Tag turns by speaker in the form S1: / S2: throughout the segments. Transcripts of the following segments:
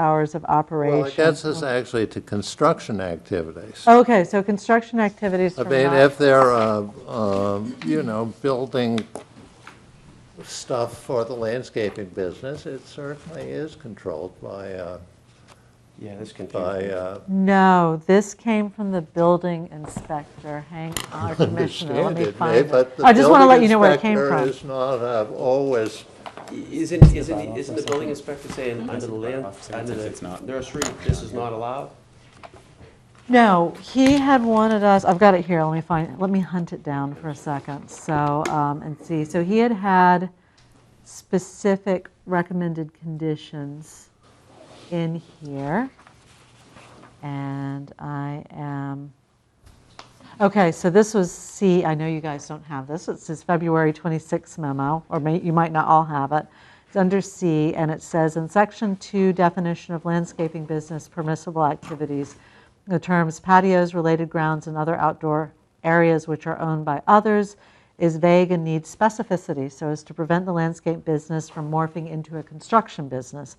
S1: hours of operation.
S2: Well, it gets us actually to construction activities.
S1: Okay, so construction activities
S2: I
S1: from
S2: mean,
S1: not,
S2: if they're, uh, um, you know, building stuff for the landscaping business, it certainly is controlled by, uh,
S3: Yeah, that's confusing.
S2: by, uh,
S1: no, this came from the building inspector, hang on, Commissioner, let
S2: understand
S1: me
S2: it,
S1: find
S2: may,
S1: it.
S2: eh, but the
S1: I just want to let you
S2: building
S1: know where it came
S2: inspector
S1: from.
S2: is not uh, always,
S3: Isn't, isn't, isn't the building inspector saying under the land,
S4: Officer
S3: under
S4: says it's
S3: the
S4: not.
S3: nursery, this is not allowed?
S1: No, he had wanted us, I've got it here, let me find, let me hunt it down for a second, so, um, and see. So he had had specific recommended conditions in here. And I am, okay, so this was C, I know you guys don't have this, it's his February 26 memo, or may, you might not all have it. It's under C, and it says, in section two, definition of landscaping business permissible activities, the terms patios, related grounds, and other outdoor areas which are owned by others is vague and needs specificity so as to prevent the landscape business from morphing into a construction business.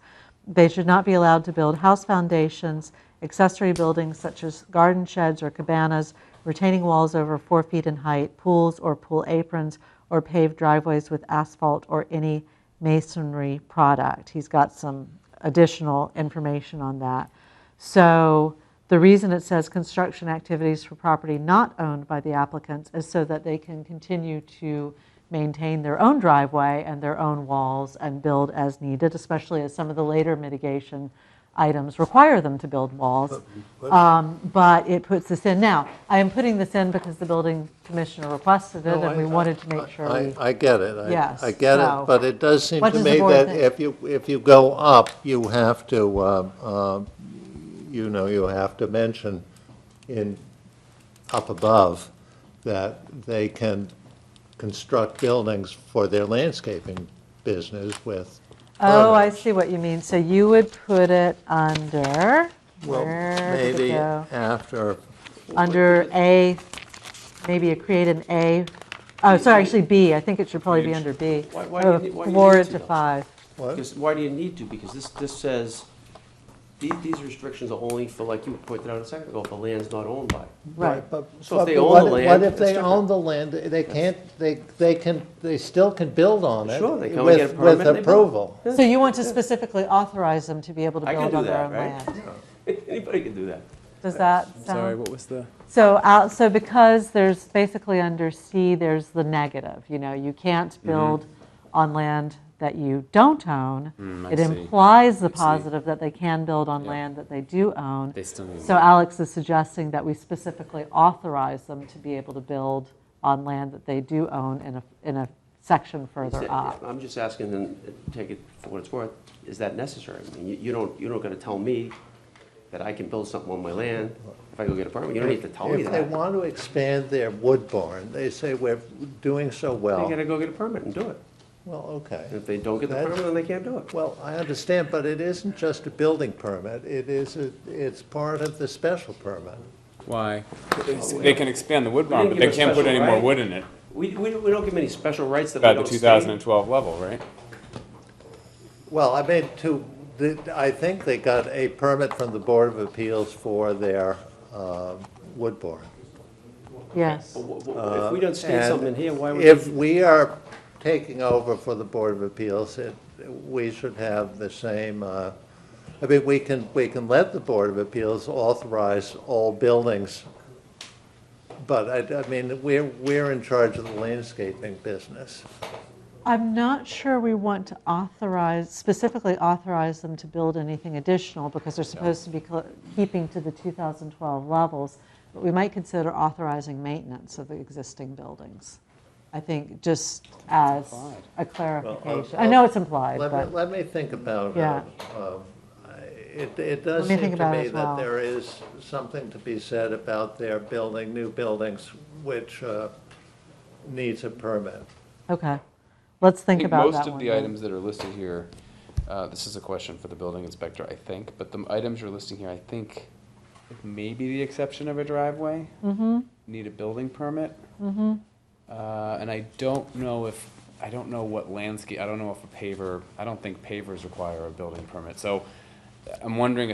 S1: They should not be allowed to build house foundations, accessory buildings such as garden sheds or cabanas, retaining walls over four feet in height, pools or pool aprons, or paved driveways with asphalt or any masonry product. He's got some additional information on that. So the reason it says construction activities for property not owned by the applicants is so that they can continue to maintain their own driveway and their own walls and build as needed, especially as some of the later mitigation items require them to build walls. Um, But it puts this in. Now, I am putting this in because the building commissioner requested it
S2: No, I-
S1: and we wanted to
S2: I-
S1: make sure
S2: I-
S1: we.
S2: I get it. I-
S1: Yes,
S2: I get
S1: so-
S2: it, but it does seem
S1: What
S2: to
S1: does the
S2: me
S1: board
S2: that
S1: think?
S2: if you, if you go up, you have to, uh, uh, you know, you have to mention in, up above, that they can construct buildings for their landscaping business with.
S1: Oh, I
S2: permits.
S1: see what you mean. So you would put it under,
S2: Well,
S1: where did it
S2: Maybe
S1: go?
S2: after,
S1: under A, maybe you create an A, oh, sorry, actually B, I think it should probably be
S4: Huge.
S1: under B.
S3: Why- why do you
S1: Uh,
S3: need- why do you
S1: lower
S3: need
S1: it
S3: to
S1: to
S3: know?
S1: five.
S2: what?
S3: Because, why do you need to? Because this, this says, these, these restrictions are only for, like you pointed out a second ago, for lands not owned by.
S1: Right.
S2: but-
S3: So if
S2: but
S3: they own the
S2: what if-
S3: land,
S2: What if
S3: it's
S2: they
S3: different.
S2: own the land, they can't, they, they can, they still can build on it.
S3: Sure, they come and
S2: with-
S3: get a permit and they
S2: With
S3: build.
S2: approval.
S1: So you want to specifically authorize them to be able to
S3: I can
S1: build
S3: do
S1: on their
S3: that,
S1: own
S3: right?
S1: land?
S3: Anybody can do that.
S1: Does that
S4: Sorry,
S1: sound?
S4: what was the?
S1: So out, so because there's basically under C, there's the negative, you know, you can't
S3: Mm-hmm.
S1: build on land that you don't own.
S4: Mm, I
S1: It
S4: see.
S1: implies the
S4: see.
S1: positive that they can build on
S4: Yeah.
S1: land that they do own.
S4: They still need.
S1: So Alex is suggesting that we specifically authorize them to be able to build on land that they do own in a, in a section further
S3: Is that-
S1: up.
S3: I'm just asking, and take it for what it's worth, is that necessary? I mean, you- you don't, you're not gonna tell me that I can build something on my land if I go get a permit, you don't need to tell me
S2: If they
S3: that.
S2: want to expand their wood barn, they say, we're doing so
S3: They
S2: well.
S3: gotta go get a permit and do it.
S2: Well, okay.
S3: And if they don't get the
S2: That-
S3: permit, then they can't do it.
S2: Well, I understand, but it isn't just a building permit. It is, a- it's part of the special permit.
S4: Why? They can expand the wood
S3: barn,
S4: barn, but
S3: didn't but
S4: they
S3: give they a
S4: can't put
S3: special,
S4: any more
S3: right?
S4: wood in it
S3: We, we we don't give them any special rights that we
S4: at the
S3: don't state.
S4: 2012 level, right?
S2: Well, I mean, to, the- I think they got a permit from the Board of Appeals for their um, wood barn.
S1: Yes.
S3: But wh- wh- If we don't state
S2: Uh, And
S3: something in here, why would
S2: If
S3: we?
S2: we are taking over for the Board of Appeals, it, we should have the same, uh, I mean, we can, we can let the Board of Appeals authorize all buildings, but I, I mean, we're, we're in charge of the landscaping business.
S1: I'm not sure we want to authorize, specifically authorize them to build anything additional because they're supposed to be cl- keeping to the 2012 levels. But we might consider authorizing maintenance of the existing buildings. I think just as a clarification. I know it's implied,
S2: Let me,
S1: but
S2: let me think about,
S1: Yeah.
S2: uh, um, I- it, it
S1: Let
S2: does
S1: me
S2: seem
S1: think
S2: to
S1: about it
S2: me
S1: as well.
S2: that there is something to be said about their building, new buildings, which uh, needs a permit.
S1: okay. Let's think
S5: think
S1: about that one.
S5: most of the
S1: then.
S5: items that are listed here, uh, this is a question for the building inspector, I think, but the items you're listing here, I think, with maybe the exception of a driveway,
S1: Mm-hmm.
S5: need a building permit. Uh, and I don't know if, I don't know what landscape, I don't know if a paver, I don't think pavers require a building permit, so I'm wondering